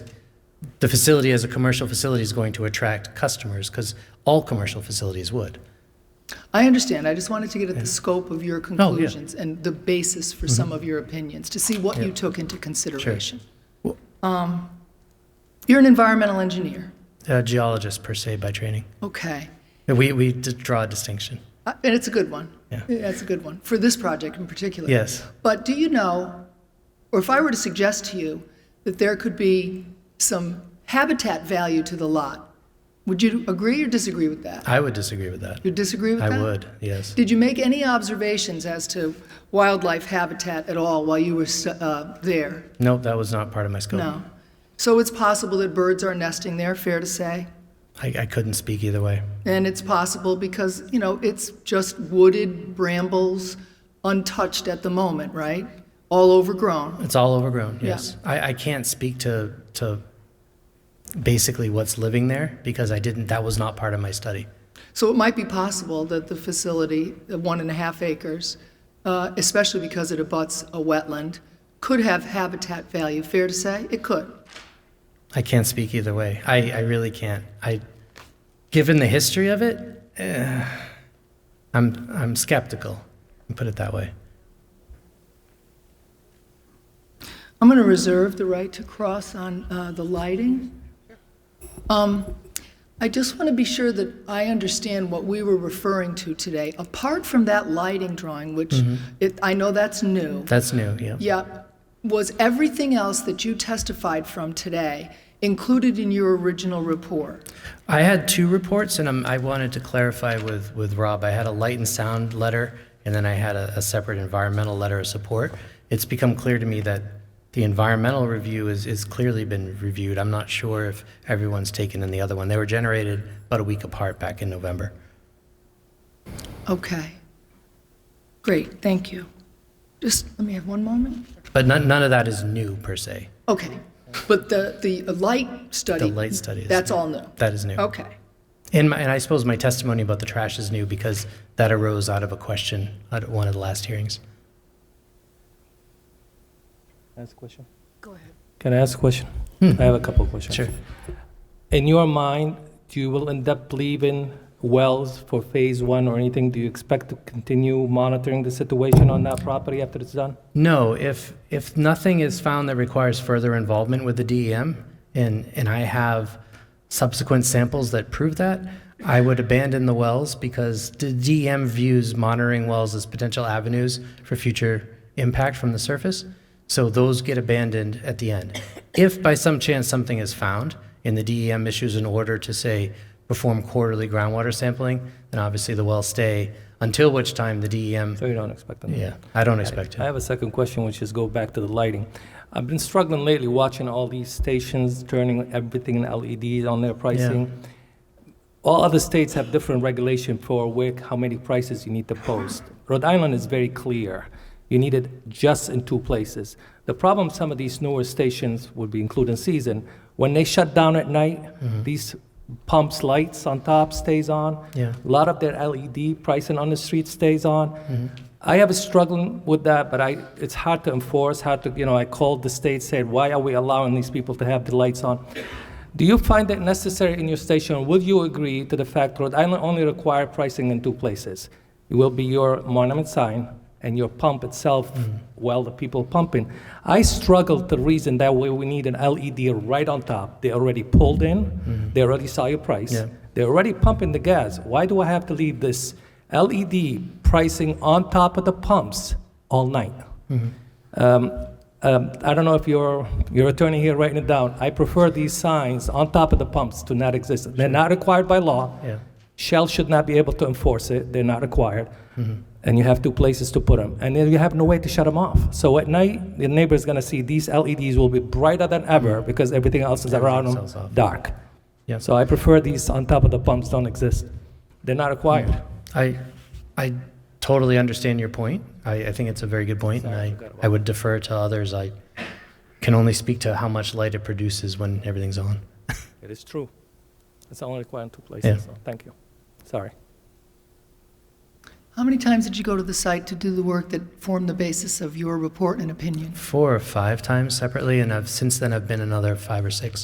the facility as a commercial facility is going to attract customers because all commercial facilities would. I understand. I just wanted to get at the scope of your conclusions and the basis for some of your opinions, to see what you Mm-hmm. Yeah. took into consideration. Well- Um, You're an environmental engineer, A geologist per se by training. okay, And We, we d- draw a distinction. Uh, and it's a good one. Yeah. That's a good one, for this project in particular. Yes. But do you know, or if I were to suggest to you that there could be some habitat value to the lot, would you agree or disagree with that? I would disagree with that. You disagree with I that? would, yes. Did you make any observations as to wildlife habitat at all while you were s- uh, there? Nope, that was not part of my scope. No. So it's possible that birds are nesting there, fair to say? I, I couldn't speak either way. And it's possible because, you know, it's just wooded brambles, untouched at the moment, right? All overgrown. It's all overgrown, Yeah. yes. I, I can't speak to, to basically what's living there because I didn't, that was not part of my study. So it might be possible that the facility, the one and a half acres, uh, especially because it abuts a wetland, could have habitat value, fair to say? It could. I can't speak either way. I, I really can't. I, given the history of it, eh, I'm, I'm skeptical, put it that way. I'm going to reserve the right to cross on uh, the lighting. Um, I just want to be sure that I understand what we were referring to today. Apart from that lighting drawing, which Mm-hmm. it- I know that's new, That's new, yeah. yeah, was everything else that you testified from today included in your original report? I had two reports, and I'm, I wanted to clarify with, with Rob. I had a light and sound letter, and then I had a, a separate environmental letter of support. It's become clear to me that the environmental review is, is clearly been reviewed. I'm not sure if everyone's taken in the other one. They were generated about a week apart back in November. Okay. Great, thank you. Just, let me have one moment. But none, none of that is new per se. Okay, but the, the light study? The light study is- That's all new? That is new. Okay. And, my, and I suppose my testimony about the trash is new because that arose out of a question at one of the last hearings. Ask a question? Go ahead. Can I ask a question? I have a couple of questions. Hmm. Sure. In your mind, do you will end up leaving wells for phase one or anything? Do you expect to continue monitoring the situation on that property after it's done? No, if, if nothing is found that requires further involvement with the DEM, and, and I have subsequent samples that prove that, I would abandon the wells because the DEM views monitoring wells as potential avenues for future impact from the surface. So those get abandoned at the end. If by some chance something is found and the DEM issues an order to say, perform quarterly groundwater sampling, then obviously the wells stay, until which time the DEM, So you don't expect them? yeah, I don't expect it. I have a second question, which is go back to the lighting. I've been struggling lately watching all these stations turning everything in LEDs on their pricing. All other states have different regulation for where, how many prices you need to post. Rhode Island is very clear. You need it just in two places. The problem some of these newer stations would be including season, when they shut down at night, these pumps lights on top stays on. Yeah. A lot of their LED pricing on the street stays on. I have a struggling with that, but I, it's hard to enforce, hard to, you know, I called the state, said, why are we allowing these people to have the lights on? Do you find that necessary in your station? Would you agree to the fact Rhode Island only require pricing in two places? It will be your monument sign and your pump itself, Mm-hmm. well, the people pumping. I struggle to reason that way we need an LED right on top. They already pulled in, they already saw your price. Mm-hmm. Yeah. They're already pumping the gas. Why do I have to leave this LED pricing on top of the pumps all night? Mm-hmm. Um, um, I don't know if your, your attorney here writing it down. I prefer these signs on top of the pumps to not exist. They're not required by law. Yeah. Shell should not be able to enforce it. They're not required. Mm-hmm. And you have two places to put them. And then you have no way to shut them off. So at night, the neighbor's going to see these LEDs will be brighter than ever because everything else is around Mm-hmm. Everything sells them off. dark. Yeah. So I prefer these on top of the pumps don't exist. They're not required. I, I totally understand your point. I, I think it's a very good point, and I, I would defer to others. I can only speak to how much light it produces when everything's on. It is true. It's only required in two Yeah. places, so thank you. Sorry. How many times did you go to the site to do the work that formed the basis of your report and opinion? Four or five times separately, and I've, since then, I've been another five or six.